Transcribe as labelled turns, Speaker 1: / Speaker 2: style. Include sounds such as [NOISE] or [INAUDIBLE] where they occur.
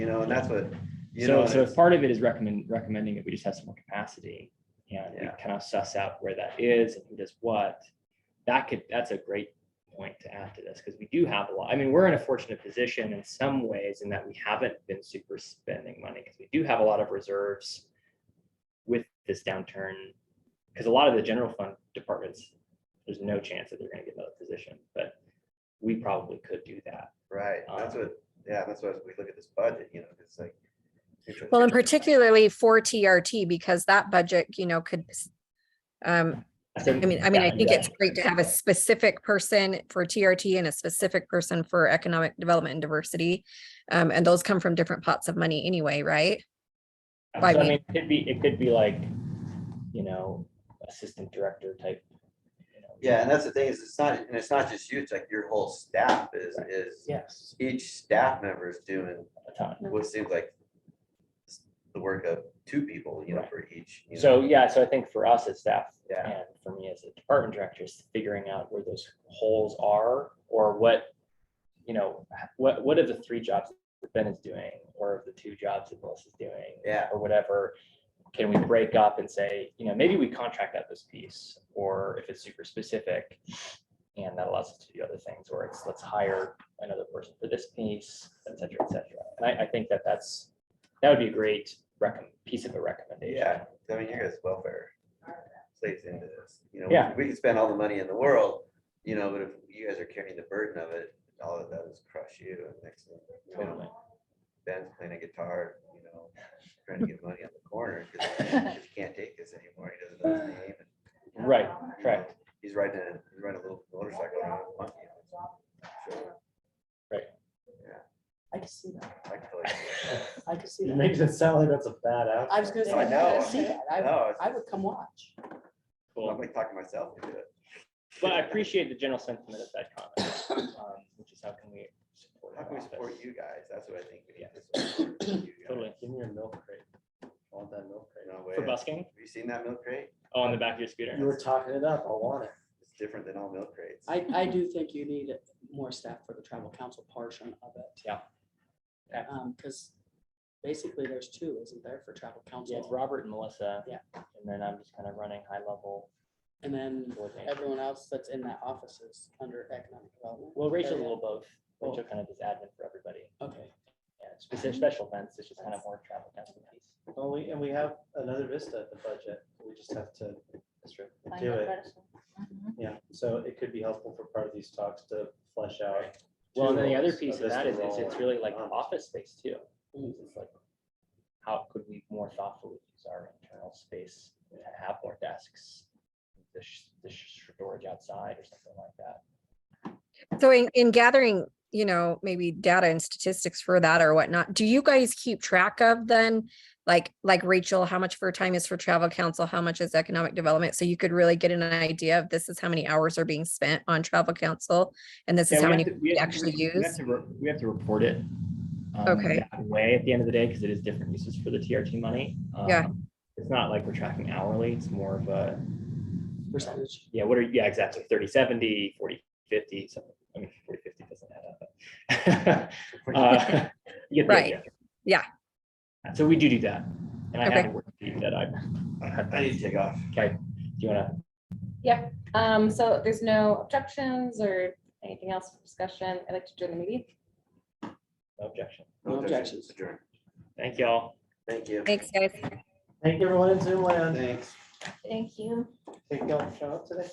Speaker 1: know, and that's what, you know.
Speaker 2: So,
Speaker 1: and
Speaker 2: so
Speaker 1: it's-
Speaker 2: if part of it is recommend, recommending that we just have some more capacity and we
Speaker 1: Yeah.
Speaker 2: kind of suss out where that is and who does what. That could, that's a great point to add to this because we do have a lot. I mean, we're in a fortunate position in some ways in that we haven't been super spending money because we do have a lot of reserves with this downturn. Because a lot of the general fund departments, there's no chance that they're going to get another position, but we probably could do that.
Speaker 1: Right, that's
Speaker 2: Um,
Speaker 1: what, yeah, that's why we look at this budget, you know, it's like.
Speaker 3: Well, and particularly for TRT, because that budget, you know, could, um,
Speaker 2: So,
Speaker 3: I mean, I mean, I
Speaker 2: yeah,
Speaker 3: think
Speaker 2: yeah.
Speaker 3: it's great to have a specific person for TRT and a specific person for economic development and diversity. Um, and those come from different pots of money anyway, right?
Speaker 2: So,
Speaker 3: By
Speaker 2: I
Speaker 3: me.
Speaker 2: mean, it could be, it could be like, you know, assistant director type. you know.
Speaker 1: Yeah, and that's the thing is, it's not, and it's not just you, it's like your whole staff is,
Speaker 2: Right.
Speaker 1: is,
Speaker 2: Yes,
Speaker 1: each staff member is doing
Speaker 2: a ton.
Speaker 1: what seems like the work of two people, you know, for each. you know.
Speaker 2: So, yeah, so I think for us as staff
Speaker 1: Yeah.
Speaker 2: and for me as a department director is figuring out where those holes are or what, you know, what, what of the three jobs that Ben is doing or of the two jobs that Melissa's doing?
Speaker 1: Yeah.
Speaker 2: Or whatever, can we break up and say, you know, maybe we contract out this piece or if it's super specific and that allows us to do other things, or it's, let's hire another person for this piece, et cetera, et cetera. And I, I think that that's, that would be a great recomm piece of a recommendation.
Speaker 1: Yeah, I mean, your guys' welfare plays into this, you know,
Speaker 2: Yeah.
Speaker 1: we can spend all the money in the world, you know, but if you guys are carrying the burden of it, all of that is crush you and next thing, you know,
Speaker 2: Totally.
Speaker 1: Ben's playing a guitar, you know, trying to get money on the corner because
Speaker 2: [LAUGHS]
Speaker 1: he can't take this anymore. He doesn't know his name. and,
Speaker 2: Right,
Speaker 1: you know,
Speaker 2: correct.
Speaker 1: He's riding a, he's riding a little motorcycle around with a monkey. on his shoulder.
Speaker 4: I can see that.
Speaker 1: I feel
Speaker 2: [LAUGHS]
Speaker 1: like-
Speaker 4: I can
Speaker 5: [LAUGHS]
Speaker 4: see
Speaker 5: It
Speaker 4: that.
Speaker 5: makes it sound like that's a bad
Speaker 4: I was gonna
Speaker 5: outfit.
Speaker 4: say,
Speaker 1: I
Speaker 4: I
Speaker 1: know.
Speaker 4: can see that. I,
Speaker 1: No, it's-
Speaker 4: I would come watch.
Speaker 1: I'm
Speaker 2: Cool.
Speaker 1: like talking to myself. into it.
Speaker 2: But I appreciate the general sentiment of that
Speaker 5: [LAUGHS]
Speaker 2: comment, um, which is how can we support?
Speaker 1: How can we
Speaker 2: our
Speaker 1: support
Speaker 2: office?
Speaker 1: you guys? That's what I think. we need to support you guys.
Speaker 2: Totally.
Speaker 5: Give me your milk crate. I want that milk crate.
Speaker 1: No way.
Speaker 2: For
Speaker 1: Have
Speaker 2: busking?
Speaker 1: you seen that milk crate?
Speaker 2: Oh, on the back of your scooter?
Speaker 5: You were talking it up. I want it.
Speaker 1: It's different than all milk crates.
Speaker 4: I, I do think you need more staff for the travel council portion of it.
Speaker 2: Yeah. Yeah.
Speaker 4: Um, because basically there's two, isn't there, for travel
Speaker 2: Yeah, it's
Speaker 4: council?
Speaker 2: Robert and Melissa.
Speaker 4: Yeah.
Speaker 2: And then I'm just kind of running high level.
Speaker 4: And then
Speaker 2: coordination.
Speaker 4: everyone else that's in that office is under economic development.
Speaker 2: Well, Rachel's a
Speaker 4: area.
Speaker 2: little both.
Speaker 5: Oh.
Speaker 2: Rachel kind of is admin for everybody.
Speaker 4: Okay,
Speaker 2: Yeah, specific special events, it's just kind of more travel. kind of piece.
Speaker 5: Well, we, and we have another vista at the budget. We just have to
Speaker 2: That's true.
Speaker 5: do it. Yeah, so it could be helpful for part of these talks to flesh out.
Speaker 2: Well, and then the other
Speaker 5: roles
Speaker 2: piece
Speaker 5: of
Speaker 2: of that is,
Speaker 5: this
Speaker 2: is it's
Speaker 5: role.
Speaker 2: really like
Speaker 5: Um,
Speaker 2: office space too.
Speaker 4: Mm.
Speaker 2: It's like, how could we more thoughtfully use our internal space to have more desks? The, sh- the sh- storage outside or something like that.
Speaker 3: So in, in gathering, you know, maybe data and statistics for that or whatnot, do you guys keep track of then? Like, like Rachel, how much of her time is for travel council? How much is economic development? So you could really get an idea of this is how many hours are being spent on travel council? And this is how many we actually use?
Speaker 2: We have to report it. um,
Speaker 3: Okay.
Speaker 2: that Way at the end of the day, because it is different uses for the TRT money.
Speaker 3: Yeah.
Speaker 2: Um, It's not like we're tracking hourly, it's more of a,
Speaker 4: percentage.
Speaker 2: yeah, what are, yeah, exactly, 30, 70, 40, 50, something. I mean, 40, 50 doesn't add up. but,
Speaker 3: [LAUGHS]
Speaker 2: uh, [LAUGHS] you get the
Speaker 3: Right.
Speaker 2: idea.
Speaker 3: Yeah.
Speaker 2: So we do do that. And I
Speaker 3: Okay.
Speaker 2: have a worksheet that I,
Speaker 1: I need to take off.
Speaker 2: okay, do you wanna,
Speaker 6: Um, so if there's no objections or anything else for discussion. I'd like to join the meeting.
Speaker 2: no objection.
Speaker 4: No objections.
Speaker 1: Adjourn.
Speaker 2: Thank y'all.
Speaker 1: Thank you.
Speaker 3: Thanks, guys.
Speaker 5: Thank everyone in Zoom land.
Speaker 1: Thanks.
Speaker 6: Thank you.
Speaker 5: Take off show today.